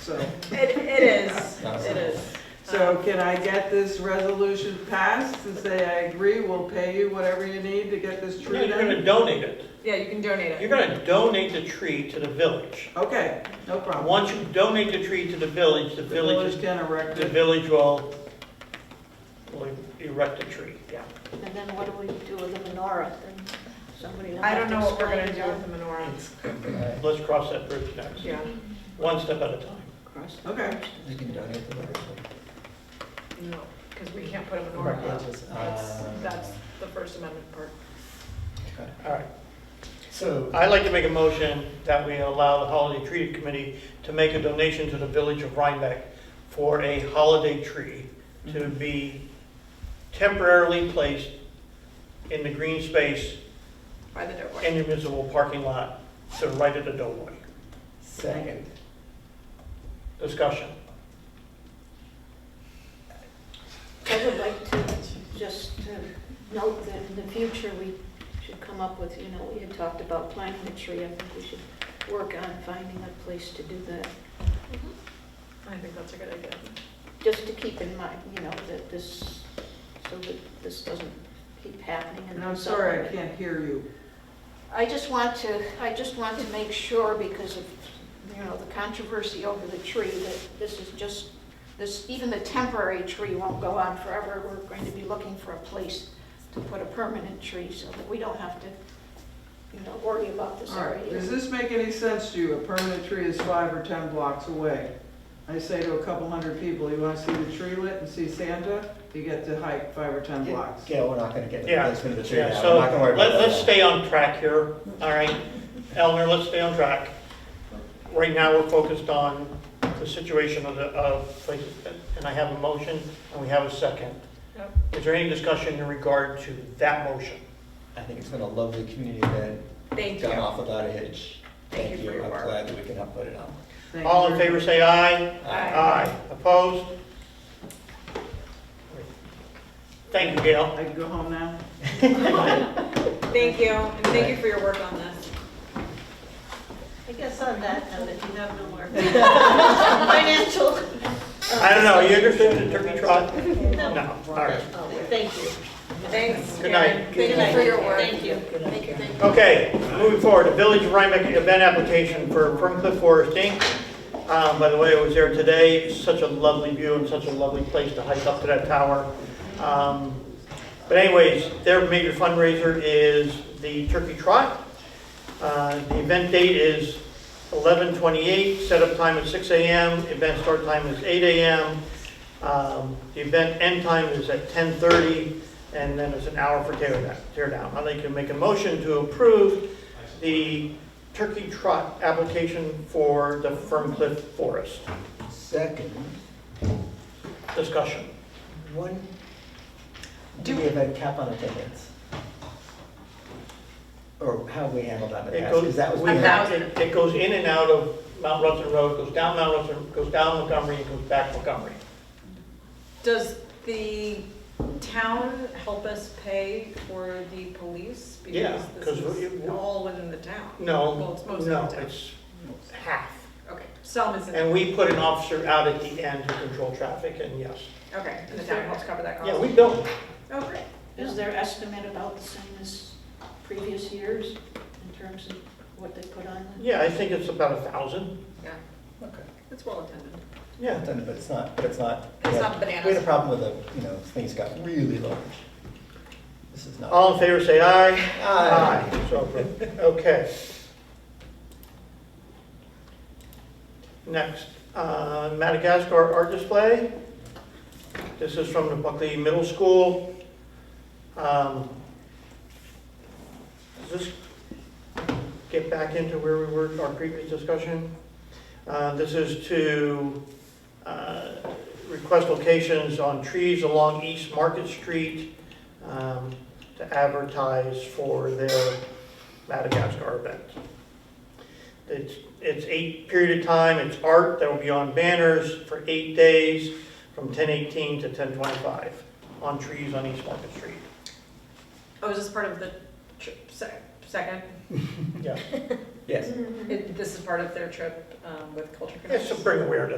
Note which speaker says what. Speaker 1: so.
Speaker 2: It, it is, it is.
Speaker 1: So can I get this resolution passed to say I agree, we'll pay you whatever you need to get this
Speaker 3: No,
Speaker 1: tree
Speaker 3: you're gonna
Speaker 1: done?
Speaker 3: donate it.
Speaker 2: Yeah, you can donate it.
Speaker 3: You're gonna donate the tree to the village.
Speaker 1: Okay, no problem.
Speaker 3: Once you donate the tree to the village, the
Speaker 1: The
Speaker 3: village,
Speaker 1: village
Speaker 3: is-
Speaker 1: can erect
Speaker 3: the
Speaker 1: it.
Speaker 3: village will, will erect a tree.
Speaker 4: And then what do we do with the menorah? Then somebody will
Speaker 2: I don't
Speaker 4: have to
Speaker 2: know what we're
Speaker 4: explain
Speaker 2: gonna do with
Speaker 4: that.
Speaker 2: the menorah.
Speaker 3: Let's cross that bridge next,
Speaker 2: Yeah,
Speaker 3: one step at a time.
Speaker 4: Cross the
Speaker 1: Okay.
Speaker 4: bridge.
Speaker 5: You can donate the library.
Speaker 2: no, because we can't put a menorah
Speaker 5: Right,
Speaker 2: up.
Speaker 5: it's just,
Speaker 2: That's,
Speaker 5: uh,
Speaker 2: that's the First Amendment part.
Speaker 5: okay.
Speaker 3: All right,
Speaker 5: So,
Speaker 3: I'd like to make a motion that we allow the Holiday Tree Committee to make a donation to the village of Rhinebeck for a holiday tree to be temporarily placed in the green space
Speaker 2: By the Doughboy.
Speaker 3: in the municipal parking lot to right at the doorway.
Speaker 5: second,
Speaker 3: Discussion.
Speaker 4: I would like to just uh, note that in the future, we should come up with, you know, we had talked about planting a tree. I think we should work on finding a place to do that,
Speaker 2: I think that's a good idea.
Speaker 4: just to keep in mind, you know, that this, so that this doesn't keep happening.
Speaker 1: And I'm sorry, I can't hear you.
Speaker 4: I just want to, I just want to make sure because of, you know, the controversy over the tree, that this is just, this, even the temporary tree won't go on forever. We're going to be looking for a place to put a permanent tree so that we don't have to, you know, worry about this
Speaker 1: All
Speaker 4: every
Speaker 1: right,
Speaker 4: year.
Speaker 1: does this make any sense to you? A permanent tree is five or 10 blocks away. I say to a couple hundred people, you want to see the tree lit and see Santa? You get to hike five or 10 blocks.
Speaker 5: Gail, we're not gonna get the
Speaker 3: Yeah.
Speaker 5: placement of the tree
Speaker 3: Yeah,
Speaker 5: now, we're
Speaker 3: so
Speaker 5: not gonna worry about
Speaker 3: let-
Speaker 5: that.
Speaker 3: let's stay on track here, all right? Eleanor, let's stay on track. Right now, we're focused on the situation of the, of places, and I have a motion, and we have a second.
Speaker 2: Yep.
Speaker 3: Is there any discussion in regard to that motion?
Speaker 5: I think it's been a lovely community event,
Speaker 2: Thank
Speaker 5: gone
Speaker 2: you.
Speaker 5: off without a hitch.
Speaker 2: Thank you for your work.
Speaker 5: I'm glad that we can help put it on.
Speaker 1: Thank
Speaker 3: All in
Speaker 1: you.
Speaker 3: favor, say aye.
Speaker 2: Aye.
Speaker 3: Opposed? Thank you, Gail.
Speaker 1: I can go home now?
Speaker 2: Thank you, and thank you for your work on this.
Speaker 6: I guess on that note, if you have no more financial,
Speaker 3: I don't know, you interested in turkey trot?
Speaker 6: No.
Speaker 3: No, all right.
Speaker 6: oh, thank you.
Speaker 2: Thanks,
Speaker 3: Good night.
Speaker 2: Karen. Thank you for your work.
Speaker 6: Thank you.
Speaker 4: Thank you, thank you.
Speaker 3: Okay, moving forward, the Village of Rhinebeck event application for Fern Cliff Forest Inc. Um, By the way, I was there today, It's such a lovely view and such a lovely place to hike up to that tower. Um, But anyways, their major fundraiser is the Turkey Trot. Uh, The event date is 11/28, setup time is 6 AM, event start time is 8 AM. Um, The event end time is at 10:30 and then it's an hour for tear down- tear down. I'd like to make a motion to approve the turkey trot application for the Ferncliff Forest.
Speaker 5: Second,
Speaker 3: Discussion.
Speaker 5: one, do we have a cap on attendance? Or how have we handled that in the
Speaker 3: It
Speaker 5: past?
Speaker 3: goes,
Speaker 5: Because that was.
Speaker 3: we have, it it goes in and out of Mount Rushmore Road, goes down Mount Rushmore, goes down Montgomery, and goes back Montgomery.
Speaker 2: Does the town help us pay for the police?
Speaker 3: Yeah,
Speaker 2: Because
Speaker 3: 'cause
Speaker 2: this is
Speaker 3: we-
Speaker 2: all within the town. Well,
Speaker 3: No,
Speaker 2: it's mostly
Speaker 3: no,
Speaker 2: the town.
Speaker 3: it's half.
Speaker 2: Okay, Selma's in,
Speaker 3: And we put an officer out at the end to control traffic, and yes.
Speaker 2: okay, and the town helps cover that cost.
Speaker 3: Yeah, we built
Speaker 2: Oh, great.
Speaker 4: Is their estimate about the same as previous years in terms of what they put on? the-
Speaker 3: Yeah, I think it's about a thousand.
Speaker 2: Yeah,
Speaker 5: Okay.
Speaker 2: it's well attended.
Speaker 3: Yeah.
Speaker 5: Attended, But it's not, but it's not.
Speaker 2: It's
Speaker 5: yeah.
Speaker 2: not bananas.
Speaker 5: We had a problem with the, you know, things got really large. This is not.
Speaker 3: All in favor, say aye.
Speaker 5: Aye.
Speaker 3: So approved. Okay. Next, uh, Madagascar art display. This is from the Buckley Middle School. Um, Does this get back into where we were, our previous discussion? Uh, This is to uh, request locations on trees along East Market Street. Um, to advertise for their Madagascar event. It's, it's eight period of time, it's art that will be on banners for eight days, from ten eighteen to ten twenty-five, on trees on East Market Street.
Speaker 2: Oh, is this part of the trip, sec- second?
Speaker 3: Yeah,
Speaker 5: Yes.
Speaker 2: It- This is part of their trip um, with Culture Connections?
Speaker 3: it's to bring awareness.